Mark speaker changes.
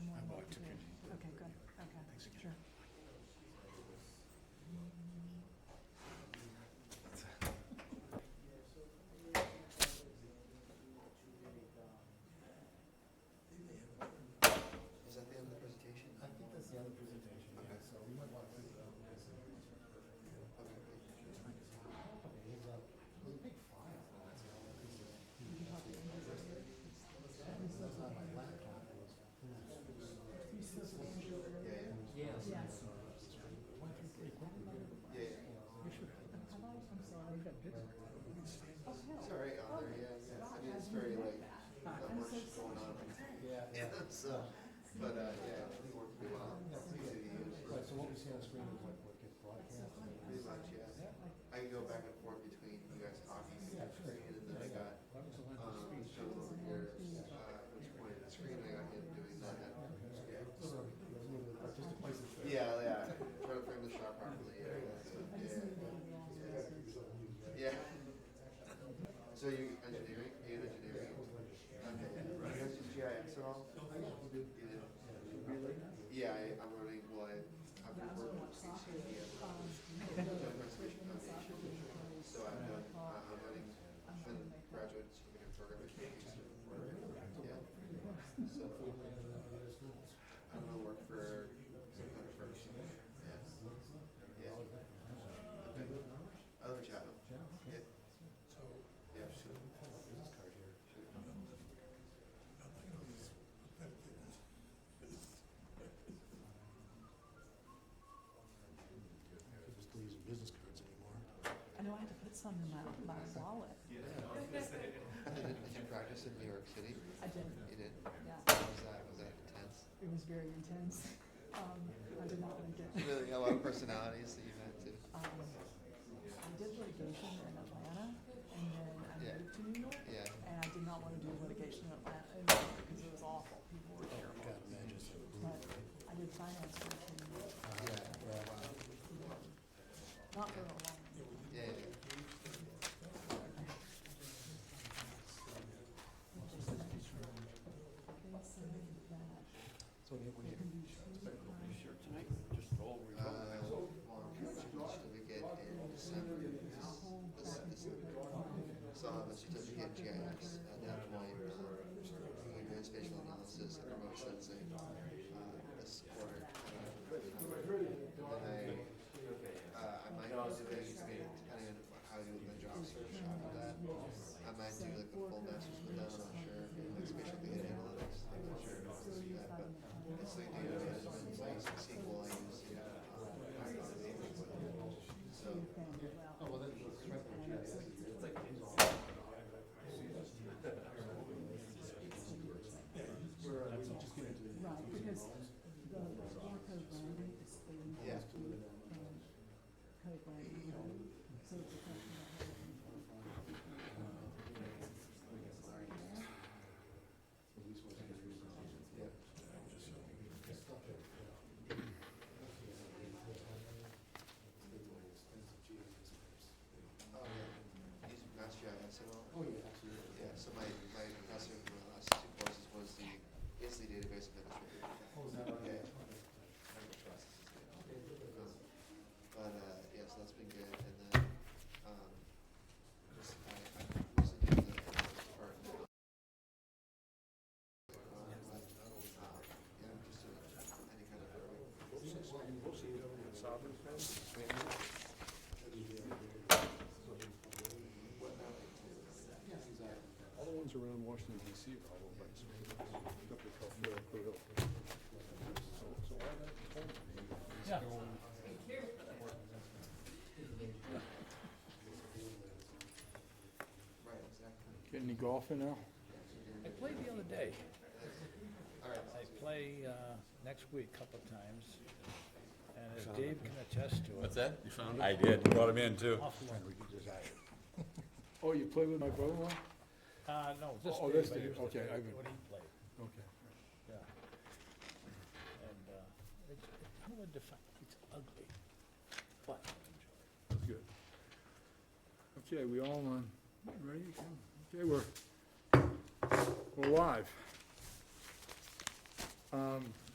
Speaker 1: But, uh, yeah, we worked pretty well. Easy to use.
Speaker 2: Right, so what we see on screen is what, what gets broadcast?
Speaker 1: Pretty much, yeah. I can go back and forth between you guys talking
Speaker 2: Yeah,
Speaker 1: and
Speaker 2: sure.
Speaker 1: screen, and then I got,
Speaker 2: That was the length of
Speaker 1: um,
Speaker 2: the
Speaker 1: Joe
Speaker 2: speech.
Speaker 1: over here, uh, which pointed at the screen, I got him doing that. Yeah,
Speaker 2: Sort of, it was a little bit artistic license there.
Speaker 1: yeah, yeah. try to frame the shot properly, yeah, yeah, so, yeah. Yeah. So you engineering, you did engineering? Okay, you guys do GIS at all? You did? Yeah, I, I'm running, well, I, I've been working with CCD, Joe Conservation Foundation. So I've done, uh, I'm running
Speaker 3: Um,
Speaker 1: the graduate certificate program. at KU. Yeah. So I'm gonna work for some kind of firm. Yeah. Yeah. Okay. I love Chatham. Yeah. Yeah, sure.
Speaker 2: I could just use business cards anymore.
Speaker 3: I know I had to put some in my, my wallet.
Speaker 1: I did, did you practice in New York City?
Speaker 3: I didn't,
Speaker 1: You did?
Speaker 3: yeah.
Speaker 1: Was that, was that intense?
Speaker 3: It was very intense. Um, I did not like it.
Speaker 1: Really, a lot of personalities that you met too?
Speaker 3: Um, I did litigation in Atlanta and then
Speaker 1: Yeah.
Speaker 3: I moved to New York.
Speaker 1: Yeah.
Speaker 3: And I did not want to do litigation in Atlanta in New York because it was awful. People were terrible.
Speaker 2: God, imagine.
Speaker 3: But I did finance work in New York,
Speaker 1: Yeah, wow.
Speaker 3: not for a long time.
Speaker 1: Yeah, yeah.
Speaker 3: They said that
Speaker 2: So when you, when
Speaker 3: they
Speaker 2: you,
Speaker 3: can do three times.
Speaker 4: Tonight, just all we
Speaker 1: Uh, long certificate in December. This, this, this, so I'll have a certificate in GIS at that point. Um, we do spatial analysis and remote sensing, uh, this quarter. And I, uh, I might do it, I mean, depending on how I do with my job search after that. I might do like a full master's with them, I'm not sure, like spatial data analytics, I'm not sure if I'll do that, but it's like data management, so I use SQL, I use, you know, uh, Python, and everything. So,
Speaker 3: Oh, well, that's Right, because the war code branding is clean.
Speaker 1: Yeah.
Speaker 3: And code branding, um, so it's a question of
Speaker 1: yeah. Oh, yeah. Use Mass GIS at all?
Speaker 2: oh, yeah, absolutely.
Speaker 1: Yeah, so my, my professor in my last two courses was the, is the database administrator.
Speaker 2: Oh, is that right?
Speaker 1: Yeah. I'm a process engineer. Um, But, uh, yeah, so that's been good, and then, um, just, I, I mostly do the analytics part now. Um, but, uh, yeah, just doing any kind of. What now?
Speaker 5: All the ones around Washington DC are all by up to Calhoun, Blue Hill. So, so all that time is going-
Speaker 1: Right, exactly.
Speaker 5: Getting any golfing now?
Speaker 4: I played the other day.
Speaker 1: All right,
Speaker 4: I play uh, next week a couple of times. And as Dave can attest to it,
Speaker 6: that? You found it? I did, brought him in too.
Speaker 4: awful.
Speaker 5: Oh, you play with my brother-in-law?
Speaker 4: Uh, no, just
Speaker 5: Oh, that's
Speaker 4: Dave, I
Speaker 5: Dave,
Speaker 4: used to
Speaker 5: okay,
Speaker 4: play
Speaker 5: I agree.
Speaker 4: what he played,
Speaker 5: Okay.
Speaker 4: yeah. And uh, it's, it's hard to define, it's ugly, but I enjoy it.
Speaker 5: That's good. Okay, we all on, ready to come? Okay, we're, we're live. Um,